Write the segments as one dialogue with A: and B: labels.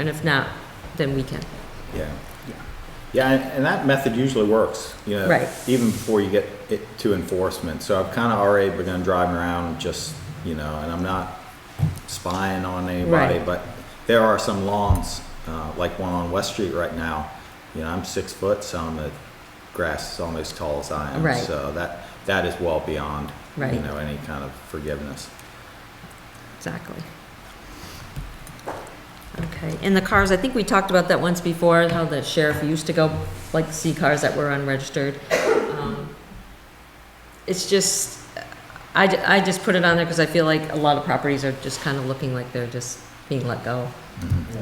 A: And if not, then we can.
B: Yeah. Yeah, and- and that method usually works, you know,
A: Right.
B: even before you get it to enforcement. So I've kind of already begun driving around just, you know, and I'm not spying on anybody,
A: Right.
B: but there are some lawns, uh, like one on West Street right now. You know, I'm six foot, so I'm the grass is almost as tall as I am.
A: Right.
B: So that, that is well beyond, you
A: Right.
B: know, any kind of forgiveness.
A: Exactly. Okay, and the cars, I think we talked about that once before, how the sheriff used to go, like, see cars that were unregistered. Um, It's just, I, ju- I just put it on there because I feel like a lot of properties are just kind of looking like they're just being let go.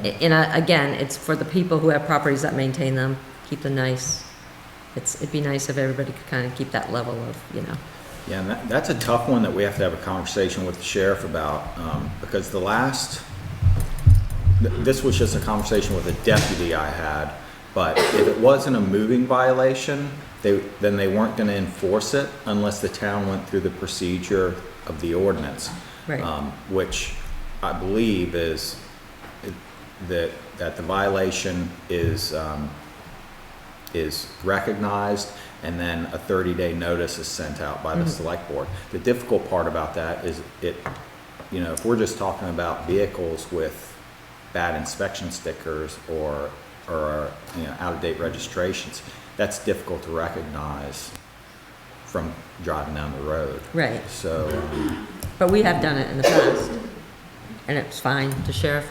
A: A- And I- again, it's for the people who have properties that maintain them, keep them nice. It's, it'd be nice if everybody could kind of keep that level of, you know,
B: Yeah, and that, that's a tough one that we have to have a conversation with the sheriff about, um, because the last, th- this was just a conversation with a deputy I had, but if it wasn't a moving violation, they, then they weren't gonna enforce it unless the town went through the procedure of the ordinance.
A: Right.
B: Um, which I believe is, it- that, that the violation is, um, is recognized, and then a 30-day notice is sent out by the select board. The difficult part about that is it, you know, if we're just talking about vehicles with bad inspection stickers or, or, you know, out-of-date registrations, that's difficult to recognize from driving down the road.
A: right.
B: So, um,
A: But we have done it in the past, and it's fine, the sheriff,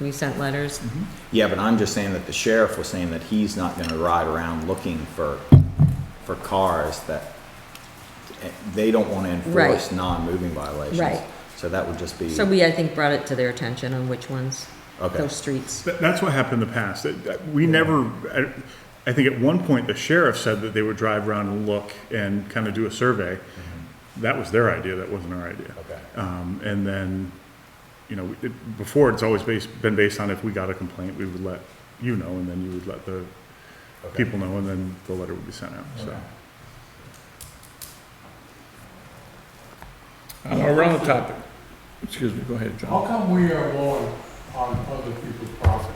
A: we sent letters,
B: yeah, but I'm just saying that the sheriff was saying that he's not gonna ride around looking for, for cars that, they don't wanna enforce
A: Right.
B: non-moving violations.
A: Right.
B: So that would just be.
A: so we, I think, brought it to their attention on which ones,
B: Okay.
A: those streets.
C: That- That's what happened in the past. That- that- We never, I- I think at one point, the sheriff said that they would drive around and look and kind of do a survey.
D: Mm-hmm.
C: That was their idea, that wasn't our idea.
B: Okay.
C: Um, And then, you know, it- before, it's always based, been based on if we got a complaint, we would let you know, and then you would let the
B: Okay.
C: people know, and then the letter would be sent out, so.
D: Uh, We're on the topic. Excuse me, go ahead,
E: How
D: John.
E: come we are mowing on other people's property?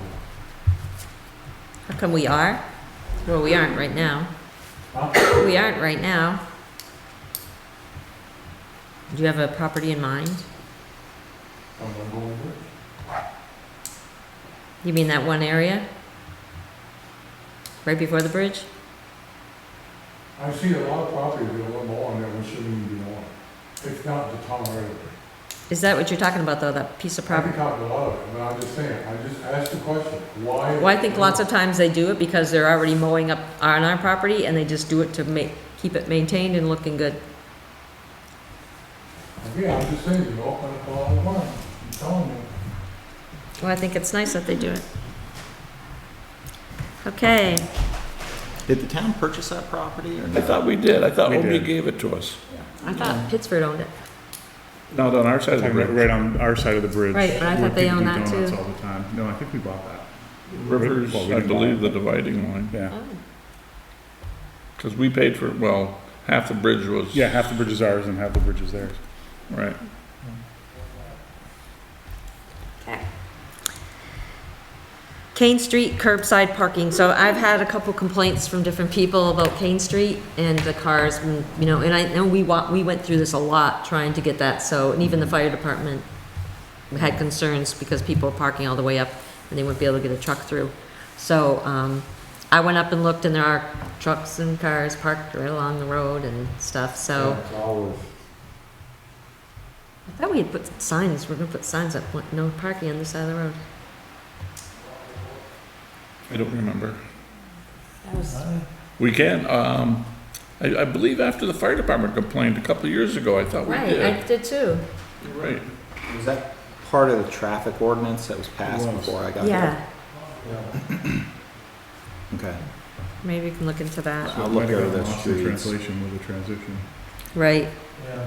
A: How come we are? Well, we aren't right now.
E: Huh?
A: We aren't right now. Do you have a property in mind?
E: Am I mowing it?
A: You mean that one area? Right before the bridge?
E: I see a lot of property that are mowing that we shouldn't even be mowing. It's not the town right of way.
A: Is that what you're talking about, though, that piece of
E: I can
A: property?
E: talk a lot of it, but I'm just saying, I just asked the question, why?
A: Well, I think lots of times they do it because they're already mowing up on our property and they just do it to make, keep it maintained and looking good.
E: Yeah, I'm just saying, you open up a lot of one, I'm telling you.
A: Well, I think it's nice that they do it. Okay,
B: Did the town purchase that property or
D: I
B: no?
D: thought we did, I thought
C: We
D: Obi
C: did.
D: gave it to us.
A: I thought Pittsford owned it.
D: Not on our side of the
C: Talking about
D: bridge.
C: Right on our side of the bridge.
A: Right, but I
C: where
A: thought they
C: people
A: own
C: do
A: that
C: donuts
A: too.
C: All the time. No, I think we bought that,
D: Rivers,
C: Well, we
D: I
C: didn't buy
D: believe,
C: it.
D: the dividing line,
C: yeah.
A: Oh,
D: because we paid for, well, half the bridge was.
C: Yeah, half the bridge is ours and half the bridge is theirs.
D: Right.
A: okay. Kane Street curbside parking, so I've had a couple complaints from different people about Kane Street and the cars, mm, you know, and I know we wa, we went through this a lot trying to get that, so, and even the fire department had concerns because people were parking all the way up and they wouldn't be able to get a truck through. So, um, I went up and looked and there are trucks and cars parked right along the road and stuff, so.
E: It's always,
A: I thought we had put signs, we're gonna put signs up, what- no parking on this side of the road.
D: I don't remember. We can, um, I, I believe after the fire department complained a couple of years ago, I thought we
A: Right, I
D: did.
A: did too.
D: Right.
B: Was that part of the traffic ordinance that was passed
E: It was.
B: before I got there?
A: Yeah,
E: yeah.
B: Okay.
A: maybe we can look into that.
B: I'll
C: It
B: look
C: might have
B: over
C: gotten
B: those
C: lost in
B: streets.
C: Translation with the transition.
A: Right,
E: Yeah.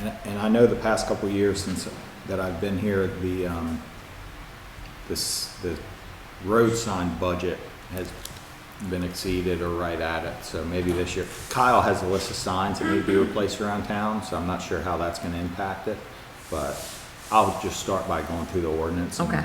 B: And, and I know the past couple of years since that I've been here, the, um, this, the road sign budget has been exceeded or right at it, so maybe this year. Kyle has a list of signs that need to be replaced around town, so I'm not sure how that's gonna impact it, but I'll just start by going through the ordinance. and
A: Okay.